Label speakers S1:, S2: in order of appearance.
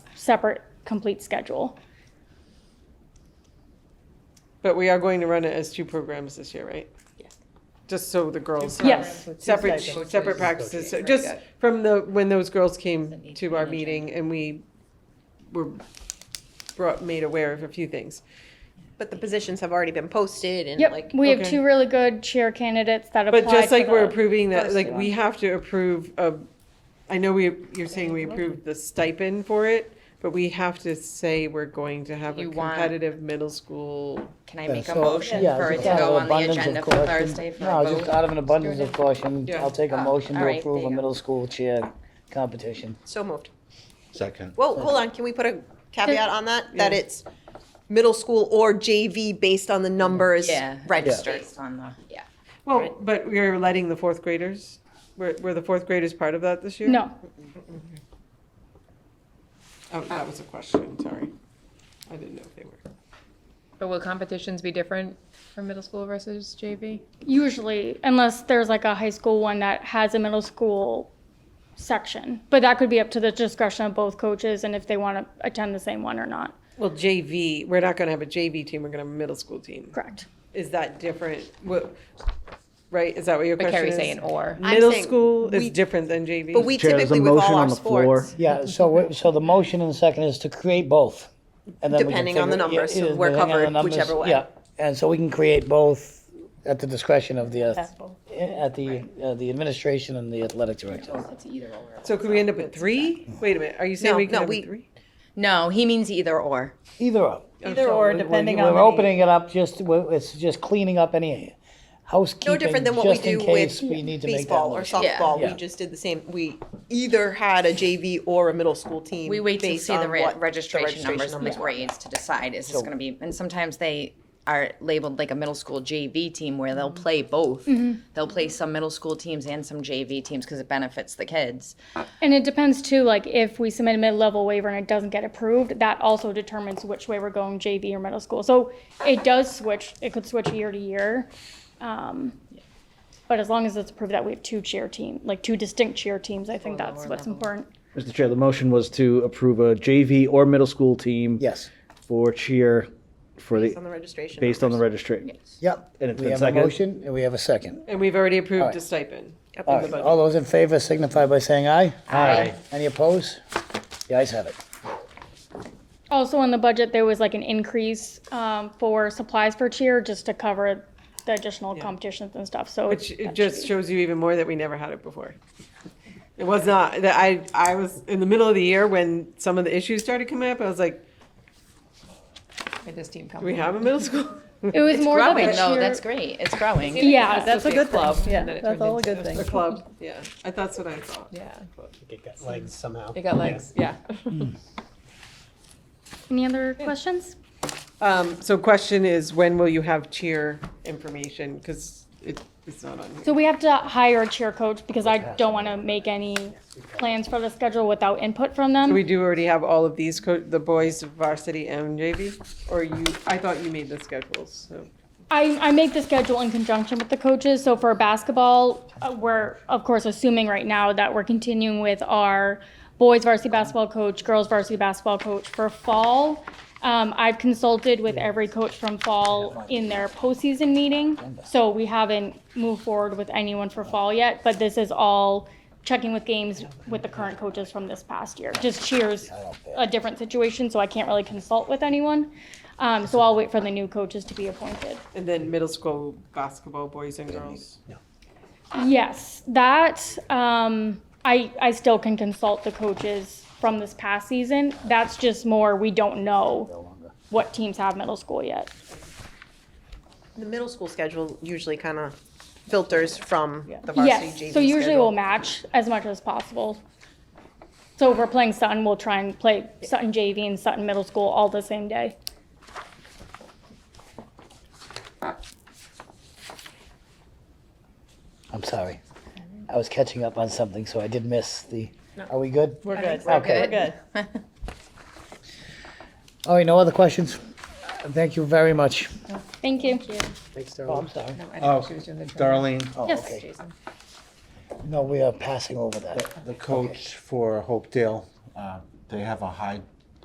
S1: separate, complete schedule.
S2: But we are going to run it as two programs this year, right?
S3: Yes.
S2: Just so the girls
S1: Yes.
S2: have
S1: programs
S2: separate,
S3: stipends.
S2: separate
S3: Coaches.
S2: practices. So
S3: Coaches,
S2: Just
S3: right.
S2: from the, when those girls
S3: Doesn't
S2: came
S3: need to
S2: to
S3: be
S2: our
S3: an
S2: meeting and we were brought, made aware of a few things.
S4: But the positions have already been posted and
S1: Yep,
S4: like.
S1: we have
S2: okay.
S1: two really good chair candidates that applied
S2: But
S1: for the.
S2: just like we're approving that,
S1: first
S2: like, we
S1: one.
S2: have to approve of, I know we, you're saying we approved the stipend for it, but we have to say we're going to have a
S3: You want-
S2: competitive middle school.
S3: Can I
S5: Yeah,
S3: make a
S5: so-
S3: motion
S5: yeah,
S3: for it
S5: just
S3: to
S5: out of
S3: go on the
S5: abundance of
S3: agenda for
S5: caution-
S3: Thursday for a
S5: No, just
S3: vote?
S5: out of an abundance of caution,
S2: Yeah.
S5: I'll take a
S3: Oh,
S5: motion
S3: all
S5: to
S3: right,
S5: approve
S3: there you
S5: a
S3: go.
S5: middle school cheer competition.
S4: So moved.
S6: Second.
S4: Whoa, hold on, can we put a caveat on that? That it's middle school or JV based on the numbers
S3: Yeah.
S4: registered?
S3: Based on the, yeah.
S2: Well, but we're letting the fourth graders, were, were the fourth graders part of that this year?
S1: No,
S2: Oh, that was a question, sorry. I didn't know if they were.
S7: But will competitions be different for middle school versus JV?
S1: usually, unless there's like a high school one that has a middle school section. But that could be up to the discretion of both coaches and if they want to attend the same one or not.
S2: Well, JV, we're not gonna have a JV team, we're gonna have a middle school team.
S1: Correct.
S2: Is that different? What, right, is that what your
S7: But
S2: question
S7: Carrie's
S2: is?
S7: saying or.
S4: I'm
S2: Middle
S4: saying
S2: school
S4: we-
S2: is different than JV?
S4: But we
S8: Chair, there's a
S4: typically with all
S8: motion
S4: our
S8: on the floor.
S4: sports,
S5: Yeah, so, we- so the motion and the second is to create both. and then we can
S4: Depending on the
S5: figure- yeah,
S4: numbers, so
S5: yeah,
S4: we're
S5: depending on the
S4: covered
S5: numbers,
S4: whichever way.
S5: Yeah, and so we can create both at the discretion of the, uh, at the, uh, the administration and the athletic director.
S3: It's either or.
S2: So could we end up with three? Wait a minute, are you saying
S4: No,
S2: we could
S4: no,
S2: have
S4: we-
S2: a three?
S3: No, he means either or.
S5: Either or.
S2: Either
S9: or, depending
S5: We're
S9: on
S5: opening it up, just, we're- it's just cleaning up any housekeeping,
S4: different than what we
S5: just in
S4: do with
S5: case we need to make that
S4: baseball or
S5: motion.
S3: Yeah.
S4: softball, we
S5: Yeah.
S4: just did the same, we either had a JV or a middle school team.
S3: We wait to
S4: based
S3: see the
S4: on
S3: re-
S4: what the
S3: registration numbers and the
S4: were.
S3: grades to decide is this gonna be, and sometimes they are labeled like a middle school JV team where they'll play both. They'll play some middle school teams and some JV teams because it benefits the kids.
S1: And it depends too, like if we submit a mid-level waiver and it doesn't get approved, that also determines which way we're going, JV or middle school. So it does switch, it could switch year to year. Um, But as long as it's approved that we have two cheer team, like two distinct cheer teams, I think that's what's important.
S8: Mr. Chair, the motion was to approve a JV or middle school team.
S5: Yes,
S8: For cheer, for
S4: Based on the
S8: the,
S4: registration.
S8: based on the
S4: numbers.
S8: registry.
S5: yep.
S8: And it's
S5: We
S8: been
S5: have a
S8: seconded?
S5: motion and we have a second.
S2: And we've already approved
S5: right.
S2: a stipend.
S5: All right, all those in favor signify by saying aye.
S8: Aye.
S5: Any opposed? The ayes have it.
S1: Also in the budget, there was like an increase um, for supplies for cheer just to cover the additional competitions and stuff, so.
S2: Which
S1: that
S2: it
S1: should
S2: just
S1: be-
S2: shows you even more that we never had it before. It was not, that I, I was in the middle of the year when some of the issues started coming up, I was like,
S3: It is team
S2: do we have a middle school?
S1: It was more of a
S3: Growing, though,
S1: cheer-
S3: that's great. It's growing.
S1: Yeah,
S9: That's a good club. Yeah,
S7: then it
S9: that's
S7: turns
S9: all a
S7: into
S9: good thing.
S2: A club, yeah, I that's what I thought.
S9: Yeah,
S10: It got legs somehow.
S9: it got legs. Yeah.
S1: Any other questions?
S2: Um, so question is, when will you have cheer information? Cause it, it's not on here.
S1: So we have to hire a cheer coach because I don't want to make any plans for the schedule without input from
S2: So we
S1: them.
S2: do already have all of these, co- the boys varsity and JV? Or you, I thought you made the schedules, so.
S1: I, I make the schedule in conjunction with the coaches. So for basketball, uh, we're of course assuming right now that we're continuing with our boys varsity basketball coach, girls varsity basketball coach for fall. Um, I've consulted with every coach from fall in their postseason meeting. So we haven't moved forward with anyone for fall yet, but this is all checking with games with the current coaches from this past year. Just cheers a different situation, so I can't really consult with anyone. Um, so I'll wait for the new coaches to be appointed.
S2: And then middle school basketball, boys and girls.
S1: Yes, that um, I I still can consult the coaches from this past season. That's just more we don't know what teams have middle school yet.
S4: The middle school schedule usually kind of filters from the varsity JV
S1: Yes, so usually
S4: schedule.
S1: we'll match as much as possible. So if we're playing Sutton, we'll try and play Sutton JV and Sutton Middle School all the same day.
S5: I'm sorry. I was catching up on something, so I did miss the, are we good?
S9: We're good.
S5: Okay.
S9: We're good.
S5: All right, no other questions? Thank you very much.
S1: Thank you.
S10: Thanks,
S5: Oh,
S10: Darrell.
S5: I'm sorry. Oh,
S6: Oh, Darlene,
S1: Yes.
S5: No, we are passing over that.
S6: the coach for Hopedale, uh, they have a high